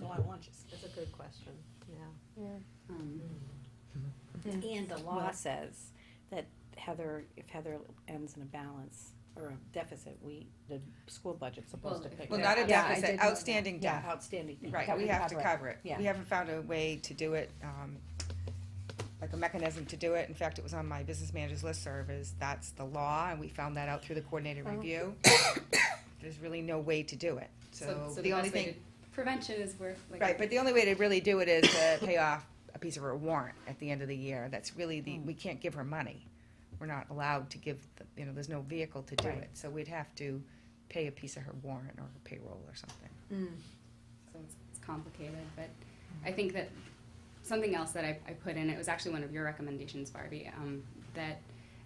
Um, Mm-hmm. And the law says that Heather, if Heather ends in a balance or a deficit, we, the school budget's supposed to pick Well, that not a up. Yeah, I did deficit, know that. outstanding Yeah, debt, outstanding. Mm. right, That we would have to it. cover it, Yeah. we haven't found a way to do it, um, like a mechanism to do it, in fact, it was on my business manager's listserv, is that's the law, and we found that out through the coordinated review. There's really no way to do it, so so the only best way thing, to- Prevention is where, like. right, but the only way to really do it is to pay off a piece of her warrant at the end of the year, that's really the, we can't give her money. We're not allowed to give, the- you know, there's no vehicle to do Right. it, so we'd have to pay a piece of her warrant or her payroll or something. Mm. So it's, it's complicated, but I Mm-hmm. think that something else that I, I put in, it was actually one of your recommendations, Barbie, um, that,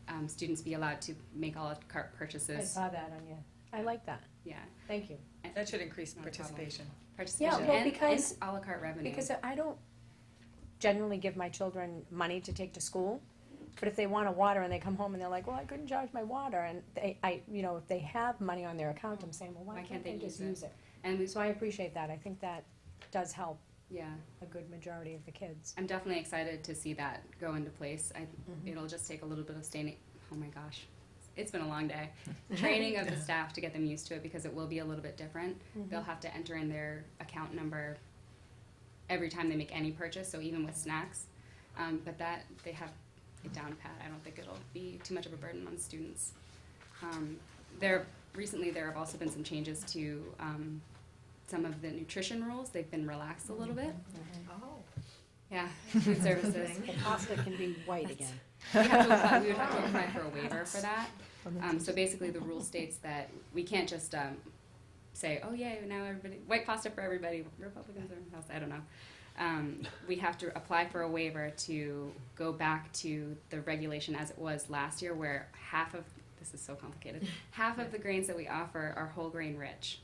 um, students be allowed to make a la carte I purchases. saw that on you. I like that. Yeah, Thank you. That should increase Not a problem. participation. participation well, and, and because- a la carte revenue. Because I don't generally give my children money to take to school, but if they want a water and they come home and they're like, well, I couldn't charge my water, and they, I, you know, if they have money on their account, I'm saying, well, why can't they just use it? And we, So I appreciate that. I think that does help yeah, a good majority of the kids. I'm definitely excited to see that go into place. I, Mm-hmm. Mm-hmm. it'll just take a little bit of staining, oh my gosh, it's been a long day. Training of the staff to get them used to it because it will be a little bit different. Mm-hmm. They'll have to enter in their account number every time they make any purchase, so even with snacks. Um, but that, they have it down pat. I don't think it'll be too much of a burden on students. Um, there, recently, there have also been some changes to, um, some of the nutrition rules. They've been relaxed a little bit. Yeah, food services. The pasta can be white again. We have to apply, we would have to apply for a waiver for that. Um, so basically, the rule states that we can't just, um, say, oh, yay, now everybody, white pasta for everybody, Republicans or else, I don't know. Um, we have to apply for a waiver to go back to the regulation as it was last year where half of, this is so complicated, half of the grains that we offer are whole grain rich.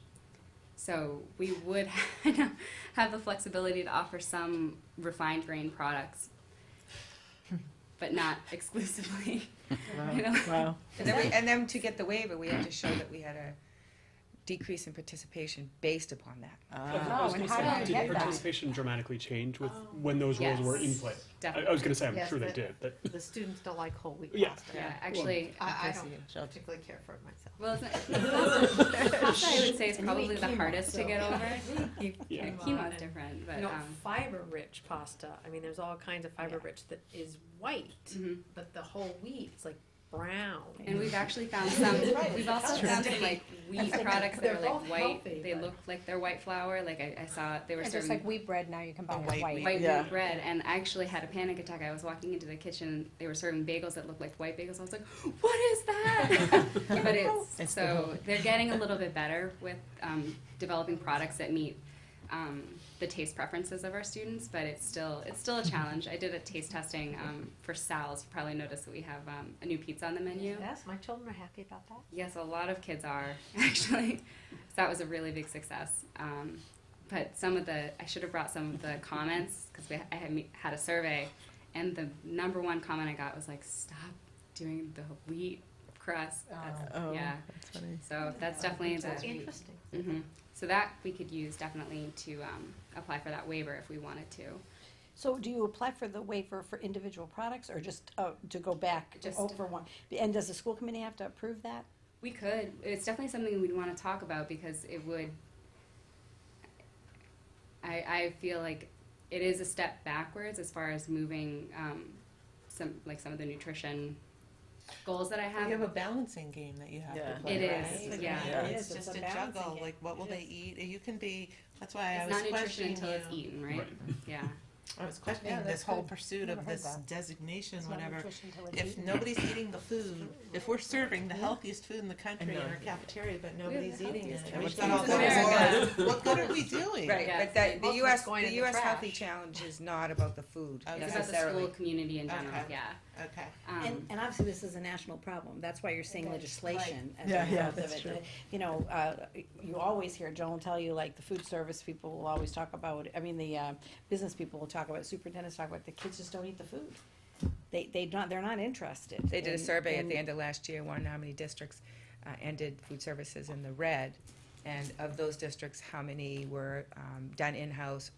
So we would have the flexibility to offer some refined grain products, but not exclusively. You know? Wow. And then, we- and then to get the waiver, we had to show that we had a decrease in participation based upon that. Uh, Ah. I was and gonna how say, do you did get that? participation dramatically change with when those rules were in Yes, play? I, Definitely. I was going to say, I'm Yes, sure they but- did, but The students don't like whole wheat Yeah. pasta. Yeah, actually, I, I Casey don't and Shelby. particularly care for it myself. well, it's not, pasta I would say is probably the hardest to get over. Yeah. Quinoa is different, but No, um, fiber-rich pasta, I mean, there's all kinds of fiber-rich that is white, mhm. but the whole wheat is like brown. and we've actually found some. We've also found some like wheat That's like- products that they're are like both white. healthy, they but- look like they're white flour. Like I, I saw they were It's just serving like wheat bread, now you can buy it white white. white Yeah. wheat bread, and I actually had a panic attack. I was walking into the kitchen. They were serving bagels that looked like white bagels. I was like, "What is that?" but it's, It's the so they're getting a little bit better with um, developing products that meet um, the taste preferences of our students. But it's still it's still a challenge. I did a taste testing um, for Sal's. You probably noticed that we have um, a new pizza on the menu. Yes, my children are happy about that. Yes, a lot of kids are actually. so that was a really big success. Um, but some of the I should have brought some of the comments because I had me- had a survey, and the number one comment I got was like, "Stop doing the wheat crust." That's- Oh, yeah. that's funny. So that's definitely That's the. interesting. hmm So that we could use definitely to um, apply for that waiver if we wanted to. So do you apply for the waiver for individual products or just uh, to go back Just- over one? And does the school committee have to approve that? We could. It's definitely something we'd want to talk about because it would. I, I feel like it is a step backwards as far as moving um, some like some of the nutrition goals that I You have. have a balancing game that you have Yeah. to play. Um, It right? is, Like, yeah. Yeah. It's It is, just it's a a balancing juggle, game. like what will It they is. eat? You can be, that's why I it's was not nutrition questioning until it's you. eaten, right? Right. Yeah. I was questioning that's this whole good. pursuit Never of heard this that. designation, It's not whatever. nutrition till it's If eaten. nobody's eating the food, if we're serving the healthiest food in the country in not our eating it. cafeteria, but nobody's the eating it, healthiest and we've food. got all It's this America. war, what good are we doing? Right, Yeah, but the, it's the like- US, Going the in the US Healthy trash. Challenge is not about the food Okay. It's about the school necessarily. community in general. Okay. Yeah. Okay. Um, And, and obviously, this is a national problem. That's why you're seeing legislation as a Yeah, yeah, result of that's it. true. That, You know, uh, you always hear Joan tell you, like, the food service people will always talk about, I mean, the, uh, business people will talk about, superintendents talk about, the kids just don't eat the food. They, they not, they're not interested. They did a And- survey at and- the end of last year, wondering how many districts uh, ended food services in the red. And of those districts, how many were um, done in-house